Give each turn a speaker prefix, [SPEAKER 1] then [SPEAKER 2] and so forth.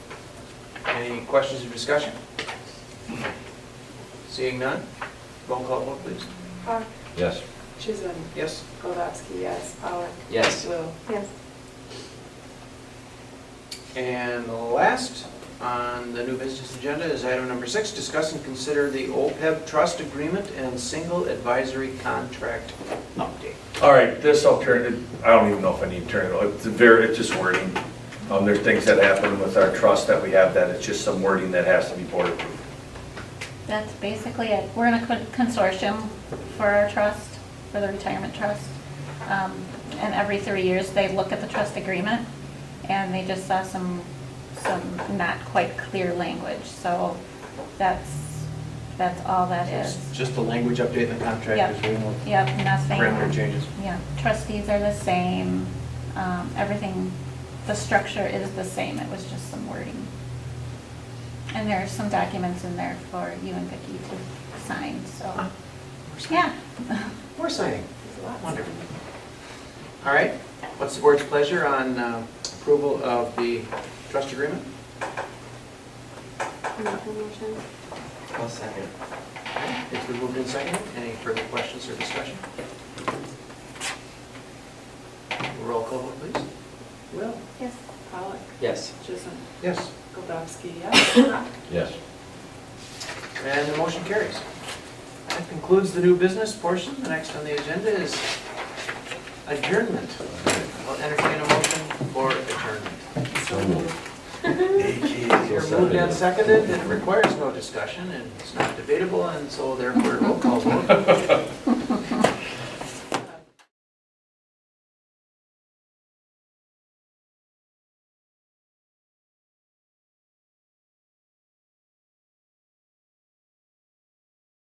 [SPEAKER 1] Any questions or discussion? Seeing none, roll call vote, please.
[SPEAKER 2] Park,
[SPEAKER 3] Yes.
[SPEAKER 2] Chisholm,
[SPEAKER 1] Yes?
[SPEAKER 2] Golovsky, yes, Pollock.
[SPEAKER 1] Yes.
[SPEAKER 2] Will.
[SPEAKER 4] Yes.
[SPEAKER 1] And the last on the new business agenda is item number six, discuss and consider the OPEB trust agreement and single advisory contract update.
[SPEAKER 3] All right, this I'll turn, it- I don't even know if I need to turn it, it's very, it's just wording. Um, there's things that happen with our trust that we have that it's just some wording that has to be board approved.
[SPEAKER 4] That's basically it. We're in a con- consortium for our trust, for the retirement trust. Um, And every three years, they look at the trust agreement, and they just saw some, some not quite clear language. So that's, that's all that is.
[SPEAKER 1] Just the language update in the
[SPEAKER 4] Yep.
[SPEAKER 1] contract is way more
[SPEAKER 4] Yep, nothing.
[SPEAKER 1] grammar changes.
[SPEAKER 4] Yeah, trustees are the same, um, everything, the structure is the same, it was just some wording. And there are some documents in there for you and Vicki to sign,
[SPEAKER 1] Uh,
[SPEAKER 4] so, yeah.
[SPEAKER 1] We're signing.
[SPEAKER 2] There's lots.
[SPEAKER 1] Wonderful. All right, what's the board's pleasure on uh, approval of the trust agreement?
[SPEAKER 2] Make a motion.
[SPEAKER 1] I'll second. It's been moved and seconded. Any further questions or discussion? Roll call, vote, please.
[SPEAKER 2] Will.
[SPEAKER 4] Yes.
[SPEAKER 2] Pollock.
[SPEAKER 5] Yes.
[SPEAKER 2] Chisholm,
[SPEAKER 1] Yes.
[SPEAKER 2] Golovsky, yes.
[SPEAKER 3] Yes.
[SPEAKER 1] And the motion carries. That concludes the new business portion. The next on the agenda is adjournment. I'll entertain a motion for adjournment.
[SPEAKER 3] So moved.
[SPEAKER 1] You're moved and seconded. It requires no discussion and it's not debatable and so therefore roll call vote.